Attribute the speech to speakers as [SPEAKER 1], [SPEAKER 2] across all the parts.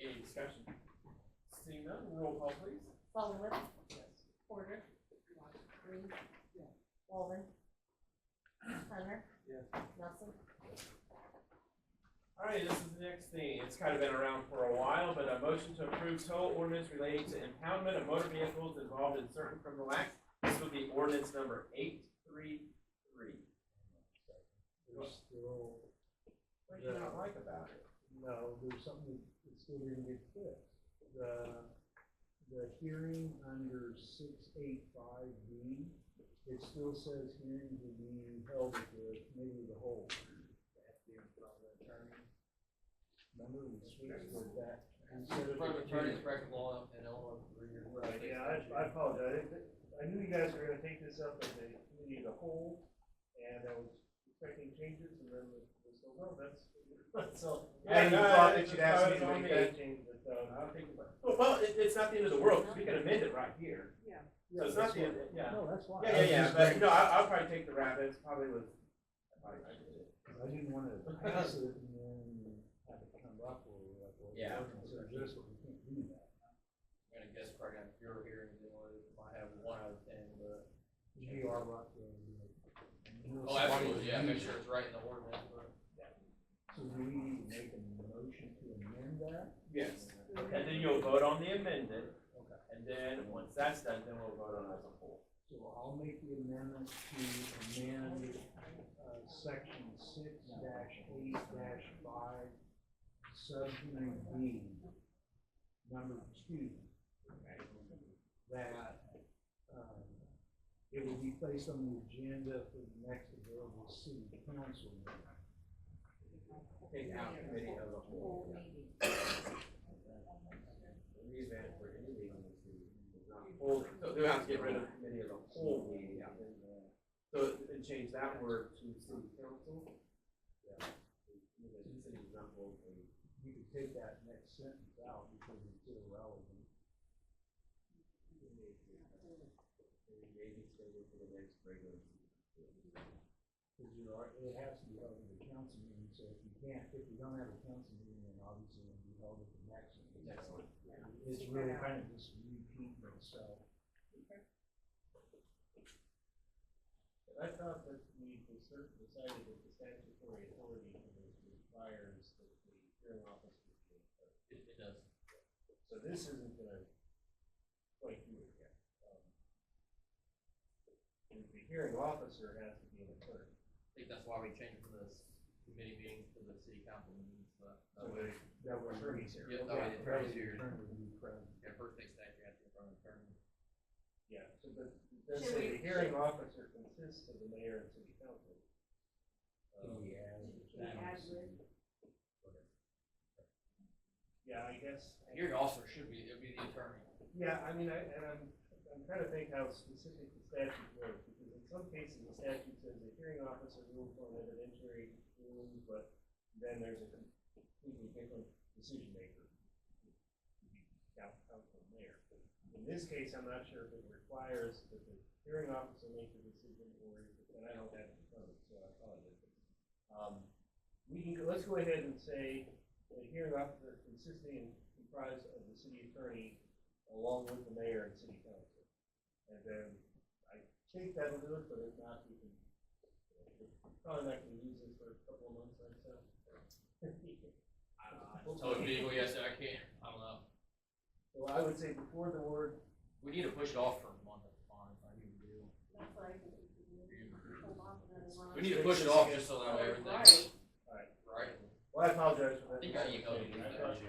[SPEAKER 1] Any discussion? Seeing none, roll call please.
[SPEAKER 2] Sullivan,
[SPEAKER 1] Yes.
[SPEAKER 2] Porter, Reed, Walden, Hunter,
[SPEAKER 1] Yes.
[SPEAKER 2] Nelson.
[SPEAKER 1] All right, this is the next thing. It's kind of been around for a while, but a motion to approve tow ordinance relating to impoundment of motor vehicles involved in certain criminal acts. This would be ordinance number eight three three.
[SPEAKER 3] There's still,
[SPEAKER 1] What do you not like about it?
[SPEAKER 3] no, there's something that's still gonna get fixed. The, the hearing under six eight five B, it still says hearing to be held at the committee of the whole. Remember, we switched with that. instead of
[SPEAKER 4] Private attorney,
[SPEAKER 3] the-
[SPEAKER 4] private law, and Illinois.
[SPEAKER 5] Right, yeah, I, I apologize. I- I knew you guys were gonna take this up as a committee as a whole, and I was expecting changes, and then it was, no, that's, that's all.
[SPEAKER 1] Yeah,
[SPEAKER 5] I
[SPEAKER 1] no,
[SPEAKER 5] thought
[SPEAKER 1] it's
[SPEAKER 5] that you'd
[SPEAKER 1] just how
[SPEAKER 5] ask me
[SPEAKER 1] it's
[SPEAKER 5] to
[SPEAKER 1] on
[SPEAKER 5] make
[SPEAKER 1] me.
[SPEAKER 5] that change, but, um,
[SPEAKER 1] I don't think, well, it, it's not the end of the world, 'cause we can amend it right here. So it's not the end,
[SPEAKER 5] uh,
[SPEAKER 1] yeah.
[SPEAKER 3] No, that's why.
[SPEAKER 1] Yeah, yeah, yeah, but you know, I, I'll probably take the rabbits, probably with.
[SPEAKER 3] I didn't wanna pass it and then have it come up or like, well,
[SPEAKER 4] Yeah.
[SPEAKER 3] consider this, but we can't do that.
[SPEAKER 4] I'm gonna guess probably on your hearing, you know, it might have one out of ten, but.
[SPEAKER 3] We are rock
[SPEAKER 4] Oh, absolutely, yeah, make sure it's right in the ordinance, but.
[SPEAKER 3] So do we need to make a motion to amend that?
[SPEAKER 1] Yes. And then you'll vote on the amendment.
[SPEAKER 3] Okay.
[SPEAKER 1] And then, once that's done, then we'll vote on it as a whole.
[SPEAKER 3] So I'll make the amendment to amend, uh, section six dash eight dash five, subheading B, number two. That, um, it will be placed on the agenda for the next available city council meeting.
[SPEAKER 1] Take out committee as a whole. In the event where any meeting is not full, so they'll have to get rid of committee as a whole meeting. So, and change that word to city council. Yeah. The City is not full.
[SPEAKER 3] You could take that next sentence out because it's irrelevant.
[SPEAKER 1] Maybe it's gonna go for the next regular.
[SPEAKER 3] Because you are, it has to be held at the council meeting, so if you can't, if you don't have a council meeting, then obviously it'll be held at the next one.
[SPEAKER 1] Next one.
[SPEAKER 3] It's really kind of just repeating itself.
[SPEAKER 5] But I thought that we decided decided that the statutory authority for this requires that the hearing officer be a clerk.
[SPEAKER 4] It, it does.
[SPEAKER 5] So this isn't gonna, like, do it yet. Um, and The hearing officer has to be an attorney.
[SPEAKER 4] I think that's why we changed from the s- committee meetings to the city council meetings, but.
[SPEAKER 5] So the,
[SPEAKER 3] That
[SPEAKER 5] the
[SPEAKER 3] was
[SPEAKER 5] attorney's here.
[SPEAKER 4] Yeah, that way the attorney's here,
[SPEAKER 3] Turn to be present.
[SPEAKER 4] yeah, first thing that you have to in front of the attorney.
[SPEAKER 5] Yeah, so the, the,
[SPEAKER 2] Should we-
[SPEAKER 5] the hearing officer consists of the mayor and city council. Um,
[SPEAKER 4] Mm-hmm.
[SPEAKER 5] Yeah, I guess.
[SPEAKER 4] Hearing officer should be, it'd be the attorney.
[SPEAKER 5] Yeah, I mean, I, and I'm, I'm trying to think how specific the statute was, because in some cases, the statute says a hearing officer rules on evidentiary rulings, but then there's a completely different decision maker. Now, come from there. In this case, I'm not sure if it requires that the hearing officer make the decision, or, if- and I don't have it in front of me, so I apologize. Um, we can, let's go ahead and say, the hearing officer consisting and comprised of the city attorney along with the mayor and city council. And then I think that'll do it, but if not, we can, probably not gonna use this for a couple of months, I'd say.
[SPEAKER 4] I don't know, So it'd be, well, yes, I can't, I don't know.
[SPEAKER 5] Well, I would say before the word,
[SPEAKER 4] We need to push it off for a month, if I'm honest, I think we do. We need to push it off just so that way everything,
[SPEAKER 2] Right.
[SPEAKER 4] right?
[SPEAKER 5] well, I apologize for
[SPEAKER 4] I
[SPEAKER 5] that.
[SPEAKER 4] think I emailed you
[SPEAKER 5] I
[SPEAKER 4] that.
[SPEAKER 5] thought,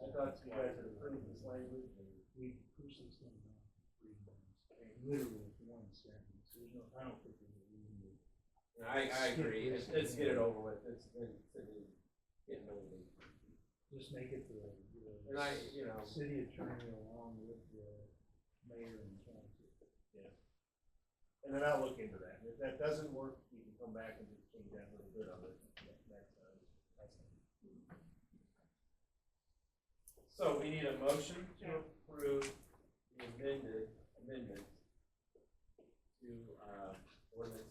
[SPEAKER 5] I thought you guys had approved this language.
[SPEAKER 3] We push this thing down three months, literally one sentence, there's no, I don't think there's a reason to.
[SPEAKER 1] I, I agree, let's, let's get it over with, it's, it's, it's getting old.
[SPEAKER 3] Just make it the,
[SPEAKER 1] And
[SPEAKER 3] the
[SPEAKER 1] I, you know,
[SPEAKER 3] city attorney along with the mayor and council.
[SPEAKER 5] And then I'll look into that. And if that doesn't work, we can come back and just change that uh, little bit of it next time.
[SPEAKER 1] so we need a motion to approve the amended amendment to, uh, ordinance